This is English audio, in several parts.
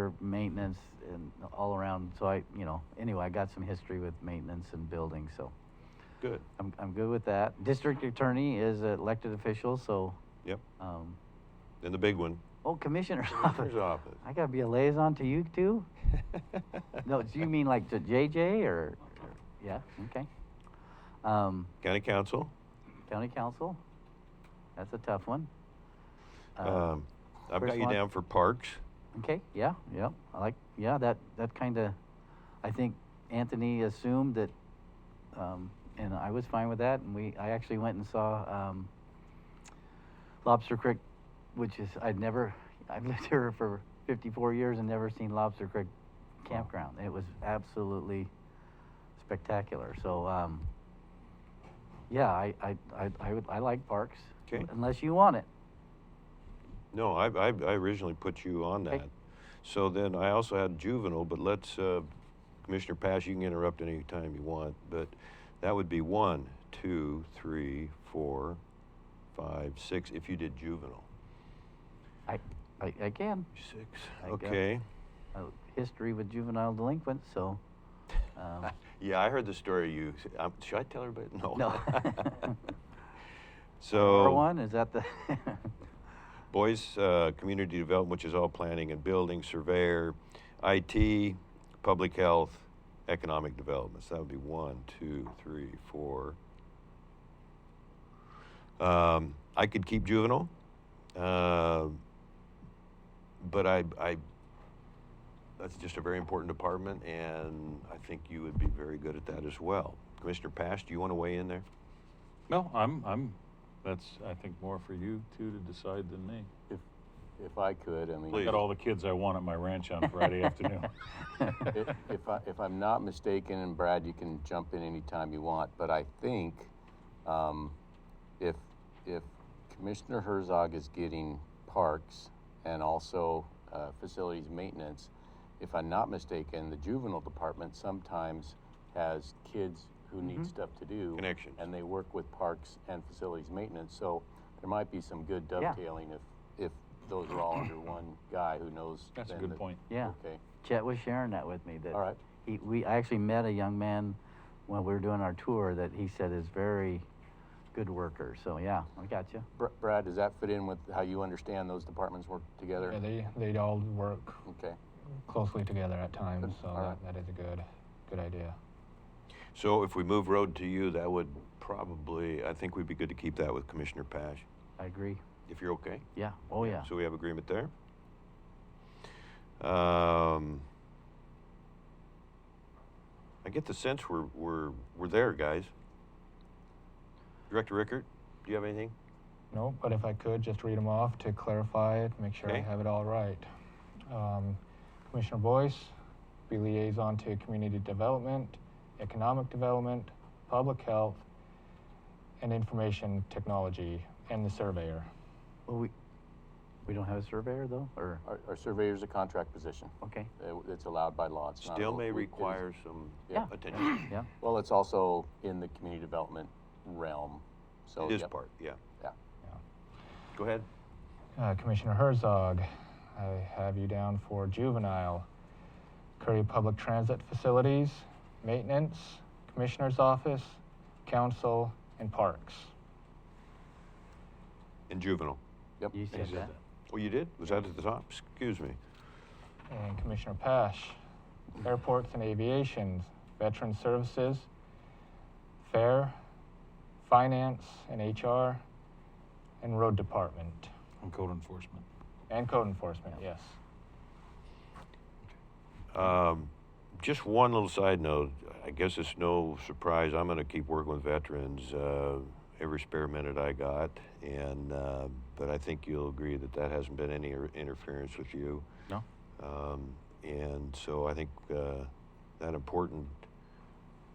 for maintenance and all around. So I, you know, anyway, I got some history with maintenance and building, so Good. I'm, I'm good with that. District attorney is an elected official, so, Yep. um, And the big one. oh, commissioner's office. Commissioner's office. I gotta be a liaison to you too? No, do you mean like to JJ or, or- yeah, okay. Um, County Council. county council, that's a tough one. Uh, Um, I've first got you one. down for Parks. Okay, yeah, yeah, I like, yeah, that, that kind of, I think Anthony assumed that, um, and I was fine with that, and we, I actually went and saw, um, Lobster Creek, which is, I'd never, I've lived here for fifty-four years and never seen Lobster Creek campground. It was absolutely spectacular, so, um, yeah, I, I, I, I would, I like parks. 'Kay. Unless you want it. No, I, I, I originally put you on Okay. that. So then I also had juvenile, but let's, uh, Commissioner Pash, you can interrupt any time you want, but that would be one, two, three, four, five, six, if you did juvenile. I, I, I can. Six, I got- okay. a history with juvenile delinquents, so. Um, Yeah, I heard the story you, um, should I tell everybody? Oh. No. No. So. number one is that the Boys uh, Community Development, which is all planning and building, surveyor, IT, public health, economic developments. That would be one, two, three, four. Um, I could keep juvenile, uh, but I, I, that's just a very important department, and I think you would be very good at that as well. Commissioner Pash, do you want to weigh in there? No, I'm, I'm, that's, I think, more for you two to decide than me. If, if I could, I mean. I Please. got all the kids I want at my ranch on Friday afternoon. i- If I, if I'm not mistaken, and Brad, you can jump in anytime you want, but I think, um, if, if Commissioner Herzog is getting parks and also, uh, facilities maintenance, if I'm not mistaken, the juvenile department sometimes has kids who Mm-hmm. need stuff to do. Connections. And they work with parks and facilities maintenance, so there might be some good Yeah. dovetailing if, if those are all under one guy who knows. That's a then good the- point. yeah. Okay, Chet was sharing that with me that all right. he we I actually met a young man when we were doing our tour that he said is very good worker. So yeah, I got you. Br- Brad, does that fit in with how you understand those departments work together? Yeah, they, they all work Okay, closely together at times, so Alright. that, that is a good, good idea. So if we move road to you, that would probably, I think we'd be good to keep that with Commissioner Pash, I agree. if you're okay. Yeah. Oh yeah. So we have agreement there. Um, I get the sense we're, we're, we're there, guys. Director Rickert, do you have anything? No, but if I could, just read them off to clarify it, make sure I Okay. have it all right. Um, Commissioner Boyce, be liaison to community development, economic development, public health, and information technology, and the surveyor. Well, Oh, we we don't have a surveyor though, or our, our surveyor's a contract position, okay. Uh, it's allowed by law, it's not. Still a- may it is- require some Yeah. attention. Yeah. Well, it's also in the community development realm, so. It is yep. part, yeah. Yeah. Go ahead. Uh, Commissioner Herzog, I have you down for juvenile, Curry Public Transit Facilities, Maintenance, Commissioner's Office, Council, and Parks. And juvenile. Yep. You said that. Oh, you did? Was that at the top? Excuse me. And Commissioner Pash, Airports and Aviation, Veteran Services, Fair, Finance and HR, and Road Department, And code enforcement. and Code Enforcement, yes. Um, just one little side note. I guess it's no surprise. I'm going to keep working with veterans uh, every spare minute I got, and uh, but I think you'll agree that that hasn't been any er- interference with you. No. Um, and so I think uh, that important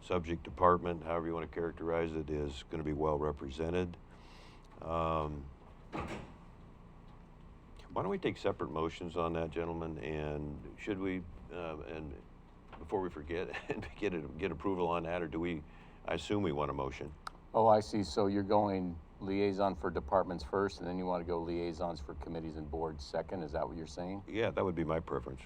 subject department, however you want to characterize it, is going to be well represented. Um, why don't we take separate motions on that, gentlemen? And should we, um, and before we forget, and get, it, get approval on that, or do we, I assume we want a motion? Oh, I see, so you're going liaison for departments first, and then you want to go liaisons for committees and boards second, is that what you're saying? Yeah, that would be my preference.